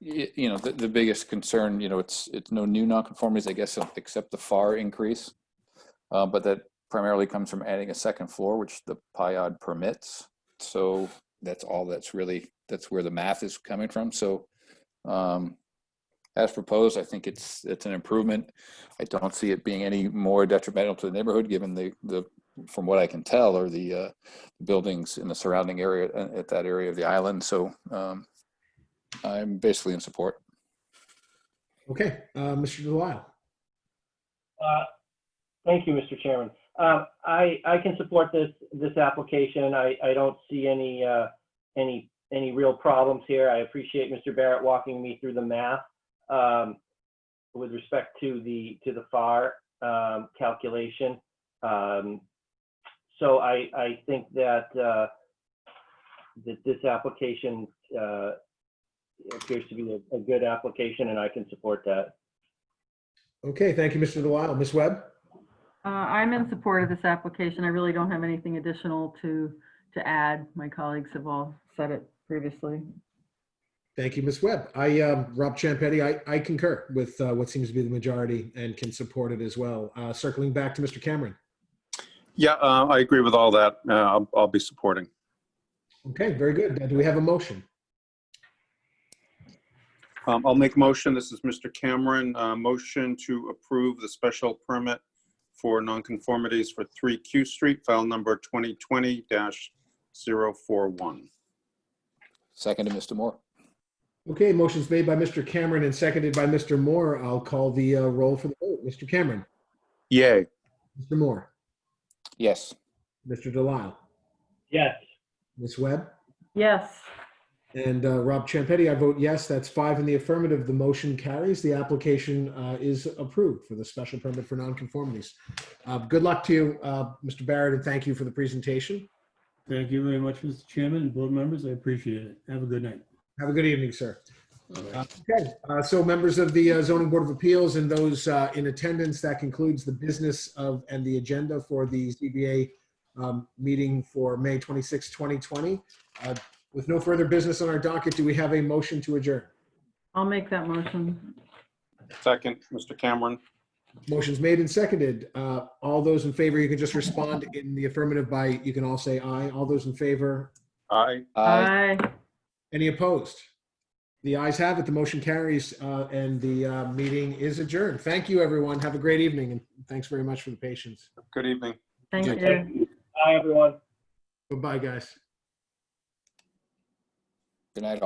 y- you know, the, the biggest concern, you know, it's, it's no new nonconformities, I guess, except the FAR increase. Uh, But that primarily comes from adding a second floor, which the PIOD permits. So that's all that's really, that's where the math is coming from. So um, as proposed, I think it's, it's an improvement. I don't see it being any more detrimental to the neighborhood, given the, the, from what I can tell, are the uh, buildings in the surrounding area, uh, at that area of the island. So um, I'm basically in support. Okay, uh, Mr. Delisle. Uh, Thank you, Mr. Chairman. Um, I, I can support this, this application. I, I don't see any, uh, any, any real problems here. I appreciate Mr. Barrett walking me through the math um, with respect to the, to the FAR um, calculation. Um, So I, I think that, uh, that this application uh, appears to be a- a good application, and I can support that. Okay, thank you, Mr. Delisle. Ms. Webb? Uh, I'm in support of this application. I really don't have anything additional to, to add. My colleagues have all said it previously. Thank you, Ms. Webb. I, um, Rob Champetti, I, I concur with uh, what seems to be the majority and can support it as well. Uh, Circling back to Mr. Cameron. Yeah, uh, I agree with all that. Uh, I'll, I'll be supporting. Okay, very good. Uh, Do we have a motion? Um, I'll make a motion. This is Mr. Cameron. Uh, motion to approve the special permit for nonconformities for 3 Q Street, file number 2020-041. Second to Mr. Moore. Okay, motion's made by Mr. Cameron and seconded by Mr. Moore. I'll call the uh, roll for the vote. Mr. Cameron, Yay. Mr. Moore, Yes. Mr. Delisle, Yes. Ms. Webb, Yes, and uh, Rob Champetti. I vote yes. That's five in the affirmative. The motion carries. The application uh, is approved for the special permit for nonconformities. Uh, Good luck to you, uh, Mr. Barrett, and thank you for the presentation. Thank you very much, Mr. Chairman and board members. I appreciate it. Have a good night. Have a good evening, sir. Okay, uh, so members of the uh, zoning board of appeals and those uh, in attendance, that concludes the business of and the agenda for the ZBA um, meeting for May 26, 2020. Uh, With no further business on our docket, do we have a motion to adjourn? I'll make that motion. Second, Mr. Cameron. Motion's made and seconded. Uh, All those in favor, you can just respond in the affirmative by, you can all say aye. All those in favor, Aye. Aye. Aye. any opposed? The ayes have it, the motion carries, uh, and the uh, meeting is adjourned. Thank you, everyone. Have a great evening, and thanks very much for the patience. Good evening. Thank Okay. you. Bye, everyone. Goodbye, guys. Good night, all.